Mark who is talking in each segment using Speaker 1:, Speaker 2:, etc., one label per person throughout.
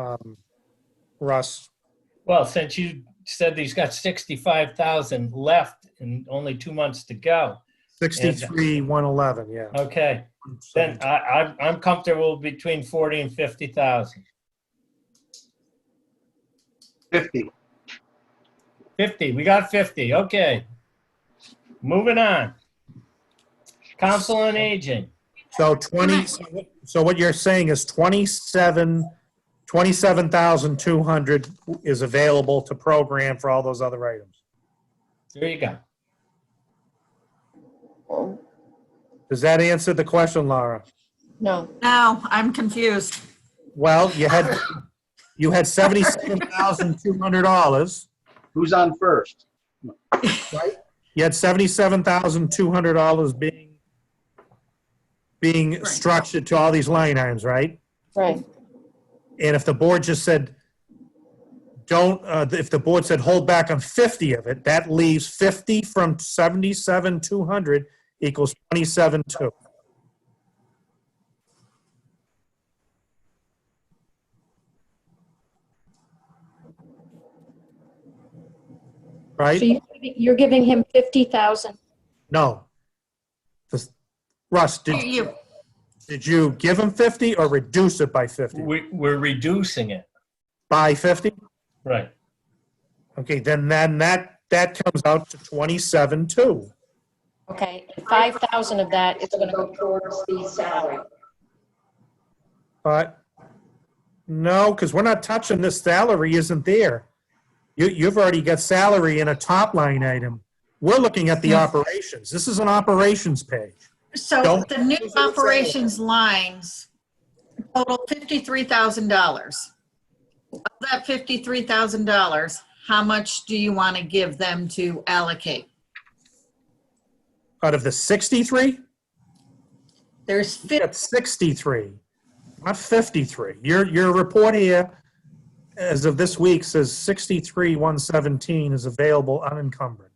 Speaker 1: um, Russ.
Speaker 2: Well, since you said he's got sixty-five thousand left and only two months to go,
Speaker 1: 63, 111, yeah.
Speaker 2: okay, then uh, I, I'm, I'm comfortable between forty and fifty thousand.
Speaker 3: 50.
Speaker 2: Fifty, we got fifty, okay. Moving on. Council on Aging,
Speaker 1: So 20, so what- so what you're saying is 27, 27,200 is available to program for all those other items.
Speaker 2: there you go.
Speaker 4: Oh,
Speaker 1: Does that answer the question, Laura?
Speaker 4: No,
Speaker 5: No, I'm confused.
Speaker 1: Well, you had, you had $77,200.
Speaker 3: Who's on first?
Speaker 1: You had seventy-seven thousand two hundred dollars being, being
Speaker 5: Right.
Speaker 1: structured to all these line items, right?
Speaker 4: right,
Speaker 1: And if the board just said, don't, uh, if the board said, hold back on fifty of it, that leaves fifty from seventy-seven two hundred equals twenty-seven two. Right?
Speaker 6: So you're giving- you're giving him 50,000?
Speaker 1: No. This- Russ,
Speaker 5: You-
Speaker 1: did,
Speaker 5: you-
Speaker 1: did you give him 50 or reduce it by 50?
Speaker 2: We, we're reducing it,
Speaker 1: By 50?
Speaker 2: right?
Speaker 1: Okay, then, then that, that comes out to 27, 2.
Speaker 6: Okay, and 5,000 of that is going to go towards the salary.
Speaker 1: But, no, because we're not touching this salary isn't there. You, you've already got salary in a top line item. We're looking at the
Speaker 5: Hmm.
Speaker 1: operations. This is an operations page.
Speaker 5: So
Speaker 1: Don't-
Speaker 5: the new operations lines total $53,000. Of that $53,000, how much do you want to give them to allocate?
Speaker 1: Out of the 63,
Speaker 5: There's 50.
Speaker 1: at 63, not 53. Your, your report here, as of this week, says 63, 117 is available unencumbered.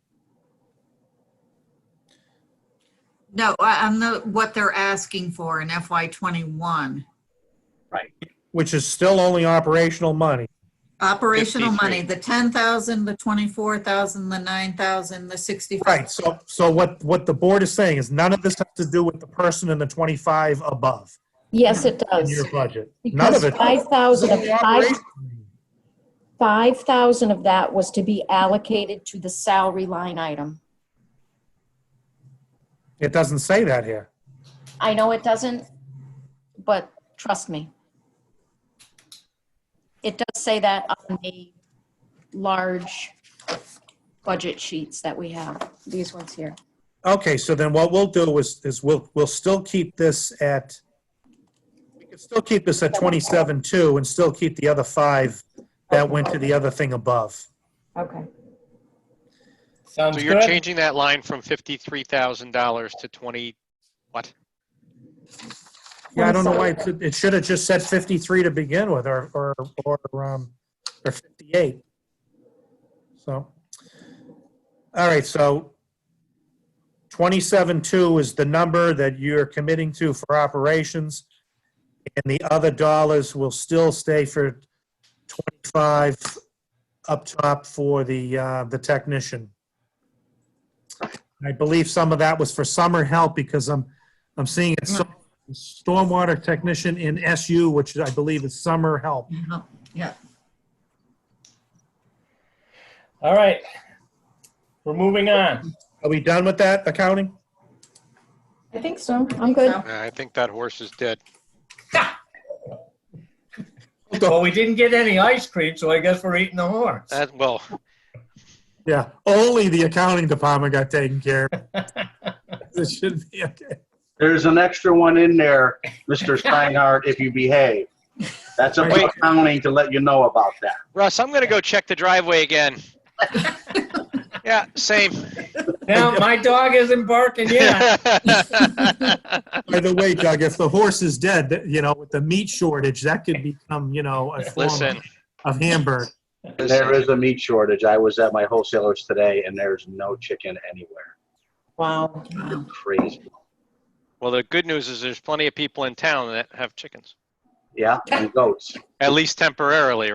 Speaker 5: No, I- I'm the, what they're asking for in FY '21.
Speaker 1: which is still only operational money.
Speaker 5: Operational money, the 10,000, the 24,000, the 9,000, the 65.
Speaker 1: Right, so, so what, what the board is saying is none of this has to do with the person in the 25 above
Speaker 6: Yes, it
Speaker 1: in
Speaker 6: does.
Speaker 1: your budget. None
Speaker 6: Because
Speaker 1: of it.
Speaker 6: 5,000 of,
Speaker 1: It's only
Speaker 6: five-
Speaker 1: operation.
Speaker 6: 5,000 of that was to be allocated to the salary line item.
Speaker 1: It doesn't say that here.
Speaker 6: I know it doesn't, but trust me. It does say that on the large budget sheets that we have, these ones here.
Speaker 1: Okay, so then what we'll do is, is we'll, we'll still keep this at, we can still keep this at 27, 2 and still keep the other five that went to the other thing above.
Speaker 6: Okay.
Speaker 2: Sounds
Speaker 7: So you're
Speaker 2: good?
Speaker 7: changing that line from fifty-three thousand dollars to twenty, what?
Speaker 1: Yeah, I don't know why, it- it should have just said 53 to begin with, or, or, or, um, or 58. So, all right, so 27.2 is the number that you're committing to for operations, and the other dollars will still stay for 25 up top for the, uh, the technician. I believe some of that was for summer help, because I'm, I'm seeing it so stormwater technician in SU, which I believe is summer help.
Speaker 5: Yeah.
Speaker 2: All right. We're moving on.
Speaker 1: Are we done with that accounting?
Speaker 4: I think so.
Speaker 6: I'm good.
Speaker 7: Uh, I think that horse is dead.
Speaker 2: Well, we didn't get any ice cream, so I guess we're eating the horse.
Speaker 7: That, Uh, well,
Speaker 1: Yeah, only the accounting department got taken care of. This should be okay.
Speaker 3: There's an extra one in there, Mr. Steinhardt, if you behave. That's a
Speaker 7: Wait.
Speaker 3: accounting to let you know about that.
Speaker 7: Russ, I'm gonna go check the driveway again. Yeah, same.
Speaker 2: Now, my dog isn't barking yet.
Speaker 1: By the way, Doug, if the horse is dead, that- you know, with the meat shortage, that could become, you know, a form
Speaker 7: Listen,
Speaker 1: of hamburger.
Speaker 3: There is a meat shortage. I was at my wholesalers today and there's no chicken anywhere.
Speaker 4: Wow.
Speaker 3: Crazy.
Speaker 7: well, the good news is there's plenty of people in town that have chickens.
Speaker 3: yeah, and goats.
Speaker 7: at least temporarily,